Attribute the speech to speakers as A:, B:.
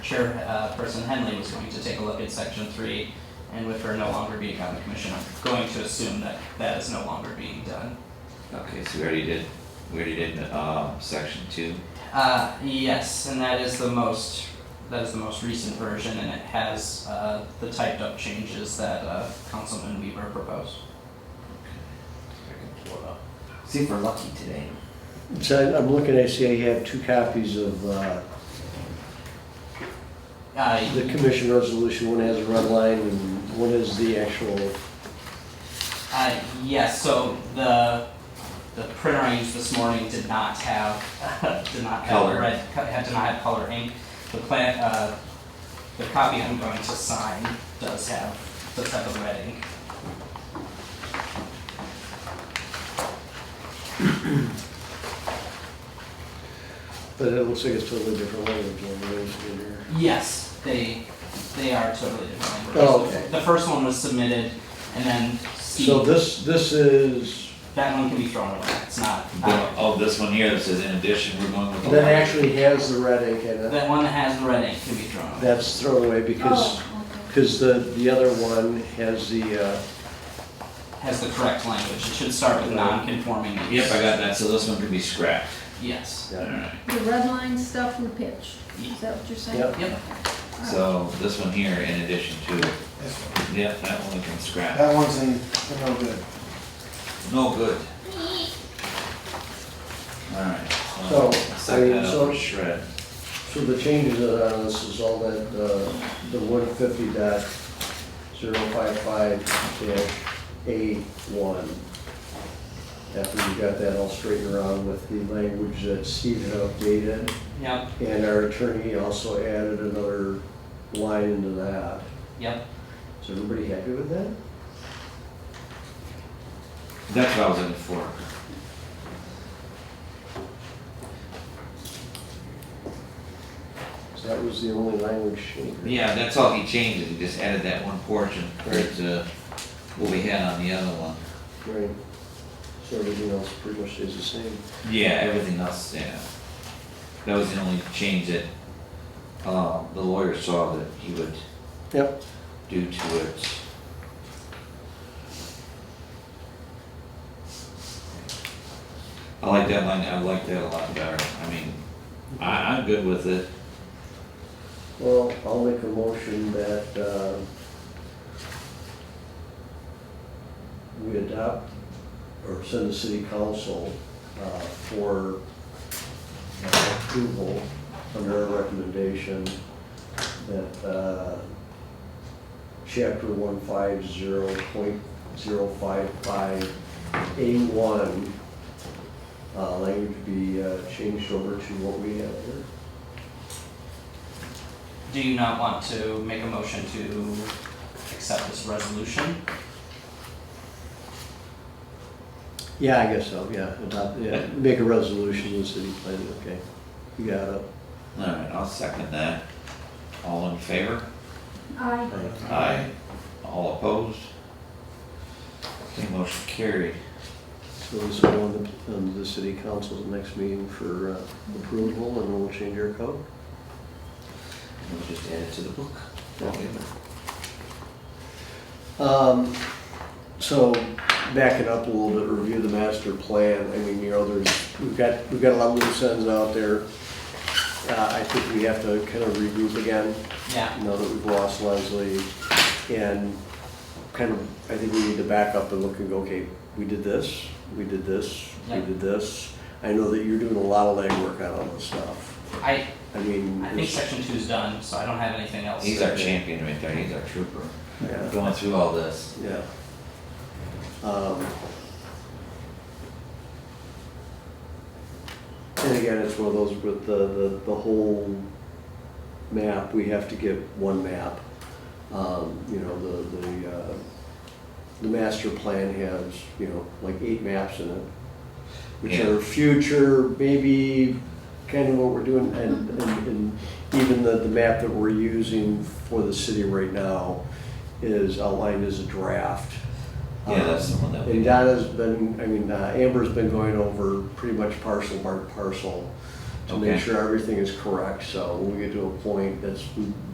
A: Chairperson uh, Henley was going to take a look at section three, and with her no longer being on the commission, I'm going to assume that that is no longer being done.
B: Okay, so we already did, we already did, uh, section two.
A: Uh, yes, and that is the most, that is the most recent version, and it has, uh, the typed up changes that, uh, Councilman Weaver proposed.
B: See, if we're lucky today.
C: So I'm looking, I see I have two copies of uh,
A: Uh,
C: the commission resolution. One has a red line and one is the actual,
A: Uh, yes, so the, the printer I used this morning did not have, did not have
B: Color.
A: red, co- had- did not have color ink. The plan, uh, the copy I'm going to sign does have, does have the red ink.
C: but it looks like it's totally different language on the ones in here.
A: Yes, they, they are totally different languages.
C: Oh, okay.
A: The first one was submitted, and then
C: So
A: Steve,
C: this, this is,
A: that one can be thrown away, it's not, uh,
B: But, oh, this one here that says in addition, we're going with. the
C: that
B: larger-
C: actually has the red ink in it.
A: that one that has the red ink can be thrown away.
C: That's thrown away because,
D: Oh, okay.
C: because the, the other one has the, uh,
A: Has the correct language, it should start with non-conforming use.
B: Yep, I got that, so this one can be scrapped.
A: Yes,
C: uh,
B: Alright,
D: The red line stuff we pitched, is that what you're saying?
C: Yep.
A: Yep.
D: All right.
B: so this one here in addition to,
E: This one.
B: yep, that one we can scrap.
E: That one's in, no good.
B: No good. Alright.
C: So,
B: well,
C: I
B: Suck
C: mean,
B: that up
C: so-
B: or shred.
C: so the changes that are on this is all that, uh, the one fifty dot zero five five dash A one. After we got that all straightened around with the language that Steve had updated,
A: yep,
C: and our attorney also added another line into that.
A: yep.
C: Is everybody happy with that?
B: That's what I was looking for.
C: So that was the only language change.
B: Yeah, that's all he changed, is he just added that one portion compared to what we had on the other one.
C: Right. So everything else pretty much stays the same.
B: Yeah, everything else, yeah. That was the only change that, uh, the lawyer saw that he would
C: Yep.
B: do to it. I like that line, I like that a lot better, I mean, I, I'm good with it.
C: Well, I'll make a motion that, uh, we adopt or send the city council, uh, for uh, approval under a recommendation that, uh, chapter one five zero point zero five five A one, uh, language be, uh, changed over to what we have here.
A: Do you not want to make a motion to accept this resolution?
C: Yeah, I guess so, yeah, adopt, yeah, make a resolution in the city plan, okay, you got it.
B: Alright, I'll second that. All in favor?
D: Aye.
B: Aye. All opposed? Okay, motion carried.
C: So this will go on the, on um, the city council's next meeting for uh, approval, and we'll change our code.
B: And We'll just add it to the book.
C: Okay. Um, so, backing up a little bit, review the master plan, I mean, you know, there's, we've got, we've got a lot of loose ends out there. Uh, I think we have to kind of regroup again,
A: Yeah,
C: now that we've lost Leslie, and kind of, I think we need to back up and look and go, okay, we did this, we did this, we
A: Yeah.
C: did this. I know that you're doing a lot of legwork on all this stuff.
A: I,
C: I mean,
A: I think
C: it's-
A: section two's done, so I don't have anything else.
B: He's our champion right there, he's our trooper.
C: yeah,
B: Going through all this.
C: yeah. Um, And again, it's one of those with the, the, the whole map, we have to get one map. Um, you know, the, the, uh, the master plan has, you know, like eight maps in it, which
B: Yeah.
C: are future, maybe kind of what we're doing, and, and, and even the, the map that we're using for the city right now is outlined as a draft.
B: Yeah, that's
C: Um,
B: the one that we.
C: and Donna's been, I mean, uh, Amber's been going over pretty much parcel by parcel to make
B: Okay.
C: sure everything is correct, so when we get to a point that's, we